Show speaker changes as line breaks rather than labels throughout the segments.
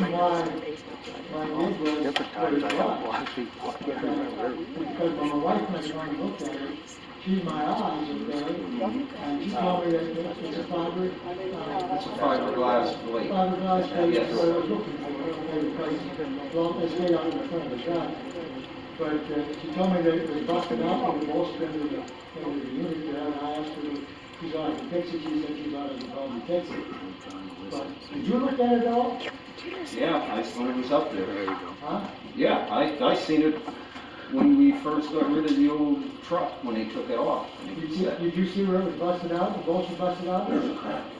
my, my neighbor.
Different times I have lost these, I can't remember.
Because when my wife was trying to look at it, she, my eyes are bad, and she told me that it- it's a fiber, uh,
It's a fiberglass blade.
fiberglass fence
Yes.
that I was looking for, they replaced, long as they are in front of the shop. But uh, she told me that it was busted out from the wall strand of the, of the unit there, and I asked her, she's out of the picture, she said she's out of the problem, fix it. But, did you look at it all?
Yeah, I saw it was up there.
Huh?
Yeah, I, I seen it when we first got rid of the old truck, when they took it off. and
Did
it
you,
said-
did you see where it was busted out, the bolts were busted out?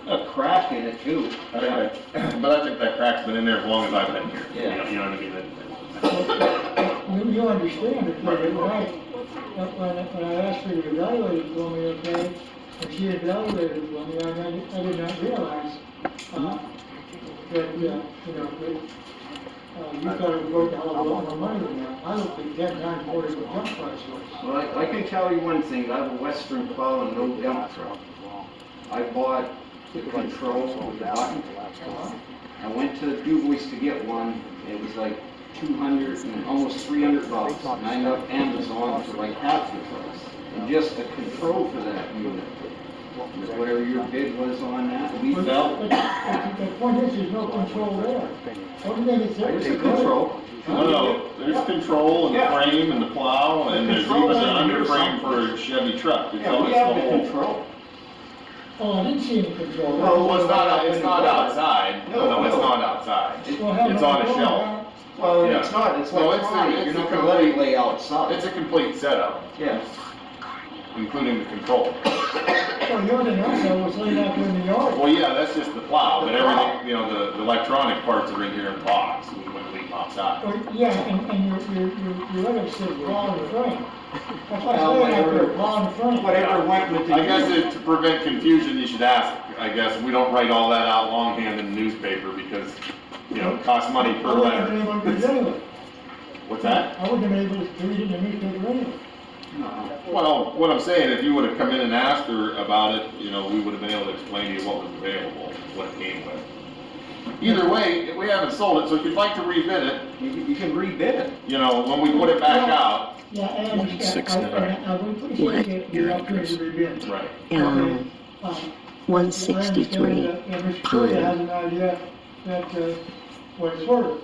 A crack in it too.
I think that, but I think that crack's been in there as long as I've been here. You know-
Yeah.
You know what I mean? That-
You, you understand it, but when I, when, when I asked her to evaluate it for me, okay, and she evaluated it for me, I, didn't- I did not realize, uh, that, uh, you know, that, uh, you thought it was worth a hell of a lot more money than that. I don't think that nine forty was jump price was.
Well, I, I can tell you one thing, I have a Western plow and no dump truck. I bought the control with the button. I went to Dubois to get one, it was like two hundred and almost three hundred bucks, and I ended up Amazon for like half the price. And just the control for that unit, was whatever your bid was on that, we
But-
felt,
but- but The point is, there's no control there. Only thing is.
there's the control.
No, no, there's control and the
Yeah.
frame and the plow and there's
Control
even an
and there's
underframe for a Chevy truck. It's
Yeah,
all,
we
it's the
have the
whole.
control.
Oh, I didn't see any control.
Well,
Well, it's not, it's not outside. No, it's not outside.
Well, how
It's
much
on a
going
shelf.
back?
Well, it's
Yeah.
not, it's
No, it's-
electronic, you're
it's
not
a
gonna let it
complete-
lay outside.
It's a complete setup,
Yeah.
including the control.
Well, the only thing I saw was laid out there in the yard.
Well, yeah, that's just the plow, but everything, you know, the, the electronic parts are in here in box, we wouldn't leave outside.
Well, Yeah, and, and your, your, your, your other said lawn and frame. That's why I
Well,
said out
whatever-
there, lawn and frame.
Whatever went with the.
I guess it- to prevent confusion, you should ask, I guess, we don't write all that out longhand in the newspaper because, you know, it costs money per
I wouldn't have been able to
letter.
do it anyway.
What's that?
I wouldn't have been able to read it in the newspaper anyway.
No.
Well, what I'm saying, if you would have come in and asked her about it, you know, we would have been able to explain to you what was available, what it came with. Either way, we haven't sold it, so if you'd like to rebid it,
You, you can rebid it.
you know, when we put it back out.
Yeah, I understand.
six
I-
nine.
I, I would appreciate the opportunity to rebid.
Right.
Okay,
Um,
um,
one
I
sixty-three.
understand that, and Mr. Curry
Pine.
has an idea that, uh, what it's worth.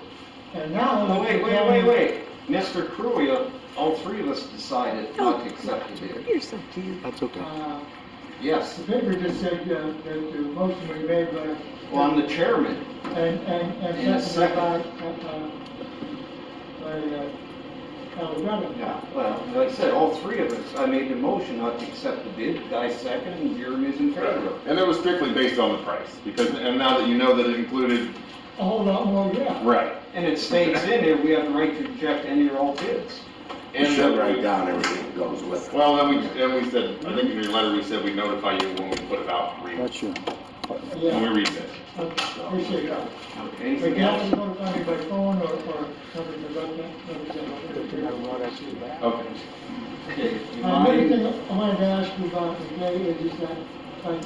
And now.
Oh, wait, wait, wait, wait. Mr. Cruia, all three of us decided not to accept the bid.
You're so cute.
That's okay.
Uh,
Yes,
The paper just said uh, that the motion was made by,
well, I'm the chairman.
and, and,
In a
and seconded
second.
by, uh, by, uh, Calderon.
Yeah, well, like I said, all three of us, I made the motion not to accept the bid. Guy second, and Jeremy's in favor.
And it was strictly based on the price, because, and now that you know that it included,
A whole lot more, yeah.
right.
And it states in there, we have the right to reject any or all bids.
And
Should
that-
write down everything that goes with it.
Well, then we, and we said, I think in your letter, we said we notify you when we put it out, for re-
That's you.
when we
Yeah,
read it.
I appreciate that.
Okay,
But
Anything
now
else?
you going to find me by phone or, or something about that?
Okay.
Okay, you
Uh, Another
mind?
thing I wanted to ask you about today is just that, like,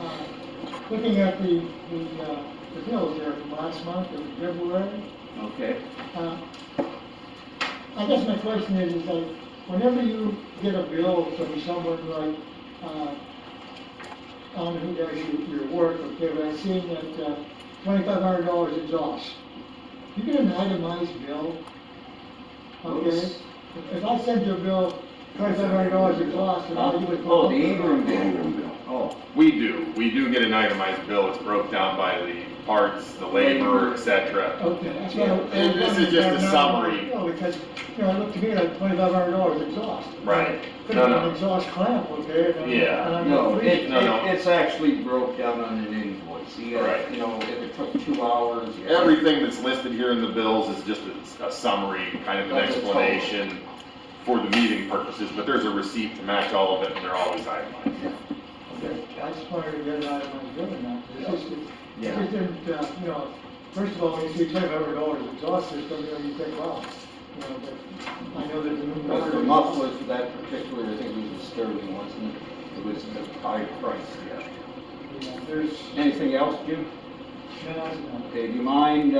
uh, looking at the, the, uh, the bills there from last month, of February,
Okay,
Uh, I guess my question is, is like, whenever you get a bill from someone like, uh, I don't know who does your, your work, okay, but I've seen that, uh, twenty-five hundred dollars exhaust. You get an itemized bill, okay?
Oops.
If I send you a bill, twenty-five hundred dollars exhaust, and all you would.
Oh, the Ingram
The
bill.
Ingram bill.
Oh,
We do, we do get an itemized bill, it's broke down by the parts, the labor, et cetera.
Okay, that's why. I-
Yeah, and this is just a summary.
No, because, you know, it looked to me like twenty-five hundred dollars exhaust.
Right.
Could
No,
have
no.
been exhaust clamp, okay? and I'm-
Yeah.
and I'm
no,
free.
it,
No, no.
it- it's actually broke down on an invoice. You got,
Right.
you know, if it took two hours. you-
Everything that's listed here in the bills is just a, a summary, kind of an
That's a total.
explanation for the meeting purposes, but there's a receipt to match all of it, and they're always itemized.
I just wanted to get it out of my head and that, it's just,
Yeah.
it just didn't, uh, you know, first of all, when you see twenty-five hundred dollars exhaust system, you know, you think, wow, you know, but I know there's a new.
But the muffler for that particular, I think it was a Sterling, wasn't it? It was the high price, yeah.
Yeah, There's,
Anything else, Jim?
no, no, no.
Okay, do you mind uh,